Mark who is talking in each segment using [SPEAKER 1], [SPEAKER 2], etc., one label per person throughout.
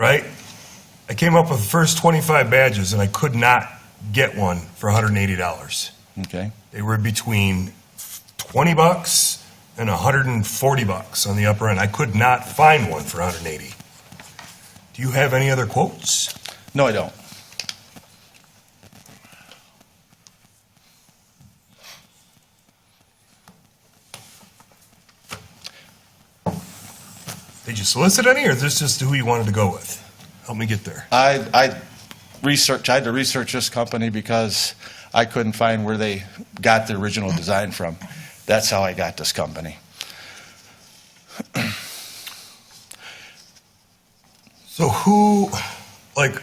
[SPEAKER 1] right? I came up with the first 25 badges and I could not get one for $180.
[SPEAKER 2] Okay.
[SPEAKER 1] They were between 20 bucks and 140 bucks on the upper end. I could not find one for 180. Do you have any other quotes?
[SPEAKER 2] No, I don't.
[SPEAKER 1] Did you solicit any, or is this just who you wanted to go with? Help me get there.
[SPEAKER 2] I, I researched, I had to research this company because I couldn't find where they got the original design from. That's how I got this company.
[SPEAKER 1] So who, like,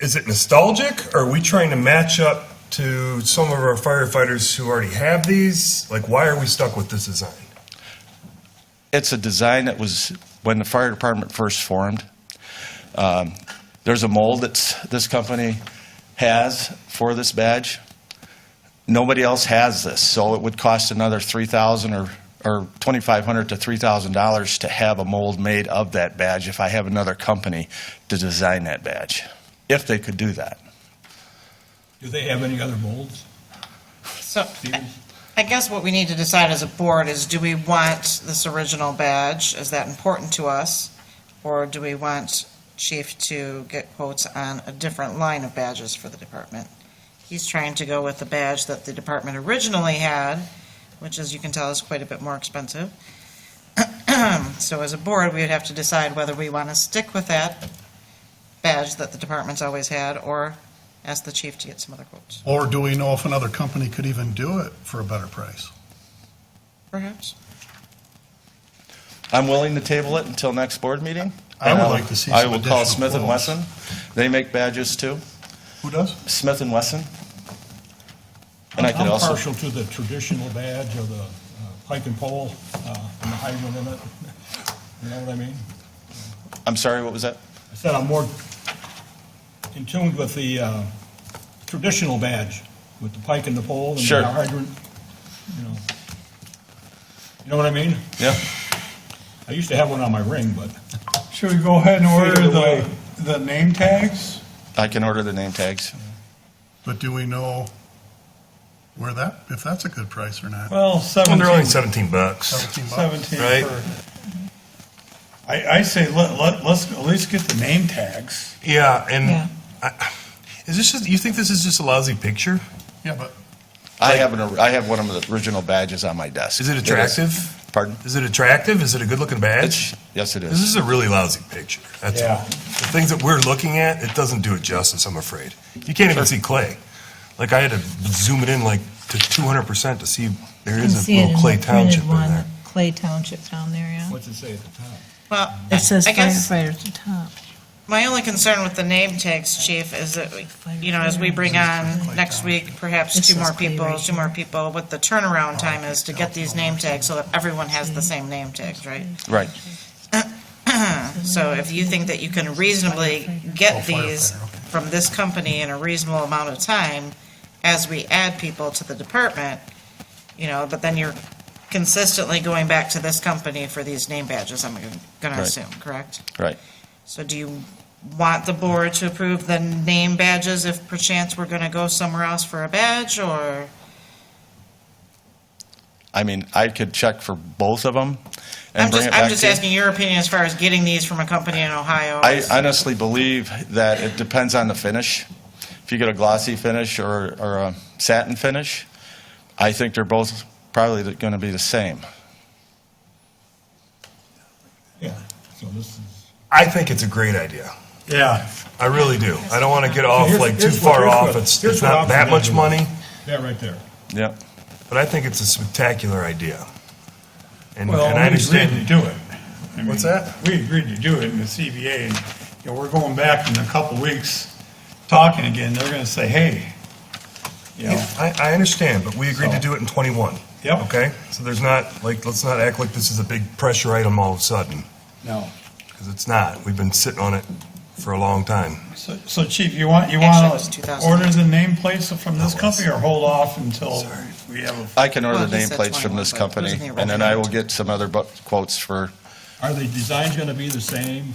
[SPEAKER 1] is it nostalgic? Or are we trying to match up to some of our firefighters who already have these? Like, why are we stuck with this design?
[SPEAKER 2] It's a design that was when the fire department first formed. Um, there's a mold that's this company has for this badge. Nobody else has this, so it would cost another three thousand or or twenty five hundred to three thousand dollars to have a mold made of that badge. If I have another company to design that badge, if they could do that.
[SPEAKER 3] Do they have any other molds?
[SPEAKER 4] So
[SPEAKER 3] Stevens?
[SPEAKER 4] I guess what we need to decide as a board is, do we want this original badge? Is that important to us? Or do we want Chief to get quotes on a different line of badges for the department? He's trying to go with the badge that the department originally had, which as you can tell is quite a bit more expensive. So as a board, we would have to decide whether we want to stick with that badge that the department's always had, or ask the chief to get some other quotes,
[SPEAKER 5] Or do we know if another company could even do it for a better price?
[SPEAKER 4] perhaps?
[SPEAKER 2] I'm willing to table it until next board meeting.
[SPEAKER 5] I would
[SPEAKER 2] And I'll-
[SPEAKER 5] like to see
[SPEAKER 2] I
[SPEAKER 5] some
[SPEAKER 2] will call
[SPEAKER 5] additional
[SPEAKER 2] Smith and
[SPEAKER 5] quotes.
[SPEAKER 2] Wesson. They make badges too.
[SPEAKER 5] Who does?
[SPEAKER 2] Smith and Wesson. And I could
[SPEAKER 3] I'm
[SPEAKER 2] also,
[SPEAKER 3] partial to the traditional badge of the uh, pike and pole uh, and the hydrant in it. You know what I mean?
[SPEAKER 2] I'm sorry, what was that?
[SPEAKER 3] I said I'm more in tune with the uh, traditional badge, with the pike and the pole and
[SPEAKER 2] Sure.
[SPEAKER 3] the hydrant. You know, you know what I mean?
[SPEAKER 2] Yeah.
[SPEAKER 3] I used to have one on my ring, but
[SPEAKER 6] Should we go ahead and
[SPEAKER 3] Fade
[SPEAKER 6] order
[SPEAKER 3] away.
[SPEAKER 6] the, the name tags?
[SPEAKER 2] I can order the name tags.
[SPEAKER 5] But do we know where that, if that's a good price or not?
[SPEAKER 6] Well,
[SPEAKER 1] Well, they're only
[SPEAKER 6] seventeen,
[SPEAKER 1] 17 bucks.
[SPEAKER 5] Seventeen bucks.
[SPEAKER 6] seventeen
[SPEAKER 1] Right.
[SPEAKER 6] for. I, I say let, let, let's at least get the name tags.
[SPEAKER 1] Yeah, and
[SPEAKER 4] Yeah.
[SPEAKER 1] I, is this just, you think this is just a lousy picture?
[SPEAKER 5] Yeah, but
[SPEAKER 2] I have an, or- I have one of the original badges on my desk.
[SPEAKER 1] Is it attractive?
[SPEAKER 2] Pardon?
[SPEAKER 1] Is it attractive? Is it a good looking badge?
[SPEAKER 2] It's, yes, it
[SPEAKER 1] This
[SPEAKER 2] is.
[SPEAKER 1] is a really lousy picture. That's all.
[SPEAKER 3] Yeah.
[SPEAKER 1] The things that we're looking at, it doesn't do it justice, I'm afraid. You can't even see clay. Like, I had to zoom it in like to 200% to see there
[SPEAKER 7] You can
[SPEAKER 1] is a
[SPEAKER 7] see it in
[SPEAKER 1] little clay
[SPEAKER 7] the
[SPEAKER 1] township
[SPEAKER 7] printed
[SPEAKER 1] in
[SPEAKER 7] one,
[SPEAKER 1] there.
[SPEAKER 7] Clay Township down there, yeah.
[SPEAKER 3] what's it say at the top?
[SPEAKER 4] Well,
[SPEAKER 7] It says
[SPEAKER 4] I guess-
[SPEAKER 7] firefighter at the top.
[SPEAKER 4] My only concern with the name tags, chief, is that, we- you know, as we bring on next week, perhaps
[SPEAKER 7] This
[SPEAKER 4] two
[SPEAKER 7] is
[SPEAKER 4] more
[SPEAKER 7] Clay
[SPEAKER 4] people,
[SPEAKER 7] right
[SPEAKER 4] two more people, what the turnaround time is to get these name tags so that everyone has the same name tags, right?
[SPEAKER 2] Right.
[SPEAKER 4] So if you think that you can reasonably get
[SPEAKER 5] Oh, firefighter,
[SPEAKER 4] these from this company in a reasonable amount of time as we add people to the department, you know, but then you're consistently going back to this company for these name badges, I'm gonna
[SPEAKER 2] Right.
[SPEAKER 4] assume, correct?
[SPEAKER 2] Right.
[SPEAKER 4] So do you want the board to approve the name badges if perchance we're gonna go somewhere else for a badge, or?
[SPEAKER 2] I mean, I could check for both of them and
[SPEAKER 4] I'm
[SPEAKER 2] bring
[SPEAKER 4] just,
[SPEAKER 2] it
[SPEAKER 4] I'm
[SPEAKER 2] back
[SPEAKER 4] just
[SPEAKER 2] to you.
[SPEAKER 4] asking your opinion as far as getting these from a company in Ohio.
[SPEAKER 2] I honestly believe that it depends on the finish. If you get a glossy finish or, or a satin finish, I think they're both probably going to be the same.
[SPEAKER 3] Yeah, so this is.
[SPEAKER 1] I think it's a great idea.
[SPEAKER 6] Yeah.
[SPEAKER 1] I really do. I don't want to get off
[SPEAKER 3] Here's-
[SPEAKER 1] like too
[SPEAKER 3] here's what-
[SPEAKER 1] far
[SPEAKER 3] here's
[SPEAKER 1] off.
[SPEAKER 3] what-
[SPEAKER 1] It's,
[SPEAKER 3] here's
[SPEAKER 1] it's
[SPEAKER 3] what
[SPEAKER 1] not
[SPEAKER 3] option
[SPEAKER 1] that
[SPEAKER 3] I
[SPEAKER 1] much
[SPEAKER 3] do.
[SPEAKER 1] money,
[SPEAKER 3] That right there.
[SPEAKER 2] Yep.
[SPEAKER 1] but I think it's a spectacular idea. And,
[SPEAKER 6] Well,
[SPEAKER 1] and I
[SPEAKER 6] we agreed
[SPEAKER 1] understand.
[SPEAKER 6] to do it. I mean,
[SPEAKER 1] What's that?
[SPEAKER 6] We agreed to do it in the CBA, and, you know, we're going back in a couple weeks, talking again, they're gonna say, hey, you know,
[SPEAKER 1] I, I understand, but we agreed to
[SPEAKER 6] So-
[SPEAKER 1] do it in 21.
[SPEAKER 6] Yep.
[SPEAKER 1] Okay? So there's not, like, let's not act like this is a big pressure item all of a sudden,
[SPEAKER 6] no.
[SPEAKER 1] because it's not. We've been sitting on it for a long time.
[SPEAKER 6] So, so chief, you want, you
[SPEAKER 4] Actually, it
[SPEAKER 6] want
[SPEAKER 4] was
[SPEAKER 6] to
[SPEAKER 4] 2000.
[SPEAKER 6] order the nameplates from this
[SPEAKER 1] That was-
[SPEAKER 6] company or hold off until we have a
[SPEAKER 2] I can order
[SPEAKER 4] Well,
[SPEAKER 2] the
[SPEAKER 4] he said
[SPEAKER 2] nameplates from this
[SPEAKER 4] 21, but
[SPEAKER 2] company,
[SPEAKER 4] who's in the
[SPEAKER 2] and then I will
[SPEAKER 4] original?
[SPEAKER 2] get some other bu- quotes for
[SPEAKER 3] Are the designs going to be the same